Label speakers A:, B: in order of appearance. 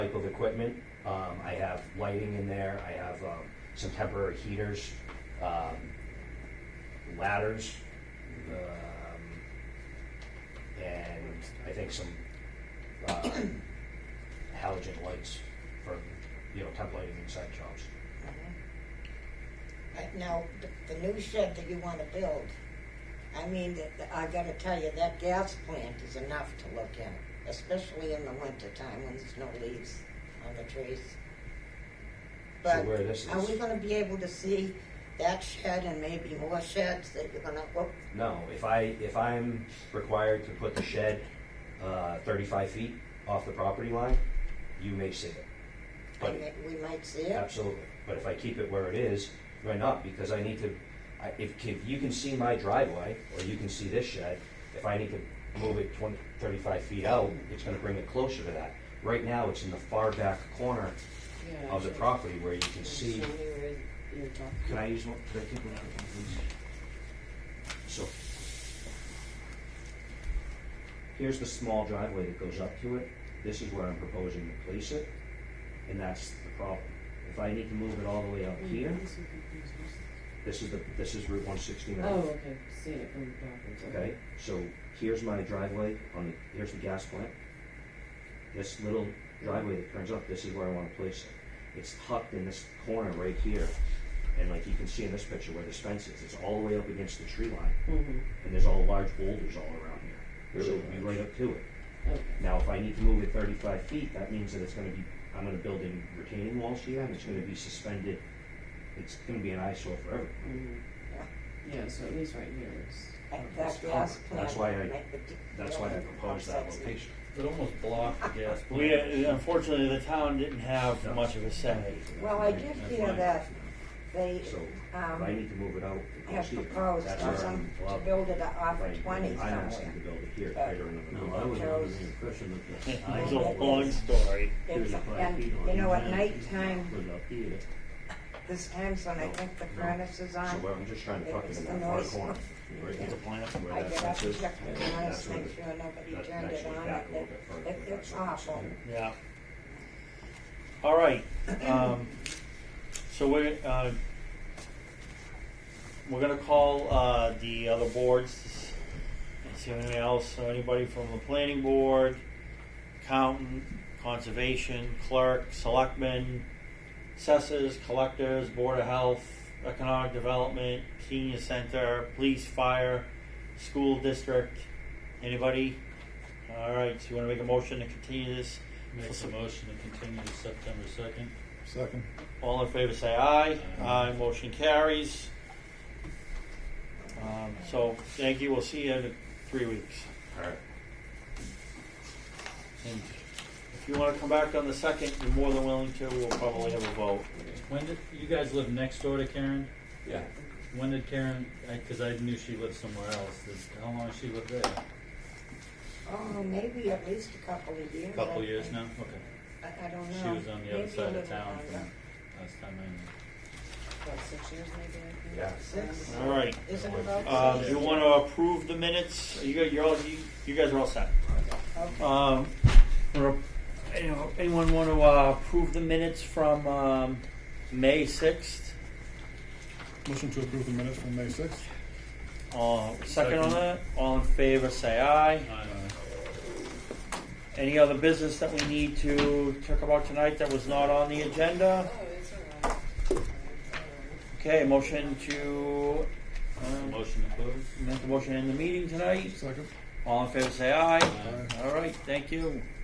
A: equipment. Um, I have lighting in there, I have, um, some temporary heaters, um, ladders, um, and I think some, uh, halogen lights for, you know, temp lighting inside jobs.
B: Uh, Now, the- the new shed that you want to build, I mean, th- th- I gotta tell you, that gas plant is enough to look at, especially in the winter time when there's no leaves on the trees. But
A: where this
B: are
A: is-
B: we gonna be able to see that shed and maybe more sheds that you're gonna, oh,
A: No, if I, if I'm required to put the shed uh, 35 feet off the property line, you may see it.
B: I
A: But,
B: may- we might see it?
A: absolutely, but if I keep it where it is, why not? Because I need to, I- if, if you can see my driveway, or you can see this shed, if I need to move it 20, 35 feet out, it's gonna bring it closer to that. Right now, it's in the far back corner of the property where you can see. Can I use one? Can I take one out of one, please? So. Here's the small driveway that goes up to it. This is where I'm proposing to place it, and that's the problem. If I need to move it all the way out here, this is the, this is Route one sixty-nine.
C: Oh, okay, seeing it from the backwards.
A: Okay, so here's my driveway on the, here's the gas plant. This little driveway that turns up, this is where I wanna place it. It's tucked in this corner right here, and like you can see in this picture where this fence is, it's all the way up against the tree line,
C: Mm-hmm,
A: and there's all large boulders all around here. So
D: Really
A: it'll be right up to it.
C: okay.
A: Now, if I need to move it thirty-five feet, that means that it's gonna be, I'm gonna build in retaining walls here, and it's gonna be suspended. It's gonna be an eyesore forever.
C: Mm-hmm. Yeah, so at least right here is.
B: And
A: That's
B: that gas
A: covered.
B: plant.
A: That's why I-
B: make the d-
A: That's why I
B: building
A: proposed that
B: complex.
A: location.
D: It almost blocked the gas plant.
E: We, uh, unfortunately, the town didn't have
A: No.
E: much of a say.
B: Well, I did hear that they,
A: So, if I
B: um,
A: need to move it out, it
B: have
A: goes here.
B: proposed
A: That's
B: on
A: where
B: some,
A: I'm
B: to
A: allowed-
B: build it off
A: if I-
B: of twenty
A: I'm asking to
B: somewhere.
A: build it here,
B: But-
A: I don't know.
D: No, I was under the impression that the
B: I
E: It's a
D: eyes
B: know.
E: long story.
B: It's- And, you know, at night time,
D: was up here.
B: this time's when I think the furnace is
A: So
B: on,
A: well, I'm just trying to tuck it in
B: It's
A: that
B: the
A: far
B: noise.
A: corner. Right
B: Yeah.
A: at the plant where
B: I
A: that
B: get up,
A: fence is.
B: check the furnace,
A: that's where
B: make
A: the-
B: sure nobody
A: that-
B: turned
A: that's
B: it
A: where
B: on,
A: back a little
B: it,
A: bit further,
B: it,
A: but
B: it's
A: that's where it's
B: awful.
A: at.
E: Yeah. All right. Um, so we're uh, we're gonna call uh, the other boards. to s- See if anything else? So anybody from the planning board, accountant, conservation, clerk, selectmen, assessors, collectors, board of health, economic development, senior center, police, fire, school district. Anybody? All right. So you want to make a motion to continue this?
F: Makes a motion to continue to September second.
G: Second.
E: All in favor, say aye.
F: Aye.
E: Aye, motion carries. Um, so, thank you, we'll see you in three weeks.
A: All right.
E: And if you wanna come back on the second, you're more than willing to, we'll probably have a vote.
F: When did, you guys live next door to Karen?
D: Yeah.
F: When did Karen, I- cause I knew she lived somewhere else, Did- how long has she lived there?
B: Oh, maybe at least a couple of years.
F: A Couple
B: I-
F: years now, okay.
B: I, I don't know.
F: She was on the other
B: Maybe a
F: side of
B: little
F: town
B: longer.
F: from last time I knew.
C: About six years maybe, I think.
A: Yeah.
B: Six,
E: All right,
B: is it about
E: uh,
B: six?
E: do you wanna approve the minutes? You guys, you're all, you, you guys are all set.
B: Okay.
E: Um, or- you know, anyone wanna, uh, approve the minutes from, um, May sixth?
G: Motion to approve the minutes from May sixth.
E: Uh, second on
F: Second.
E: that, all in favor, say aye.
F: I don't know.
E: Any other business that we need to talk about tonight that was not on the agenda? Okay, motion to, um,
F: Uh, Motion to close?
E: make a motion in the meeting tonight.
G: Second.
E: All in favor, say aye.
F: Aye.
E: All right, thank you.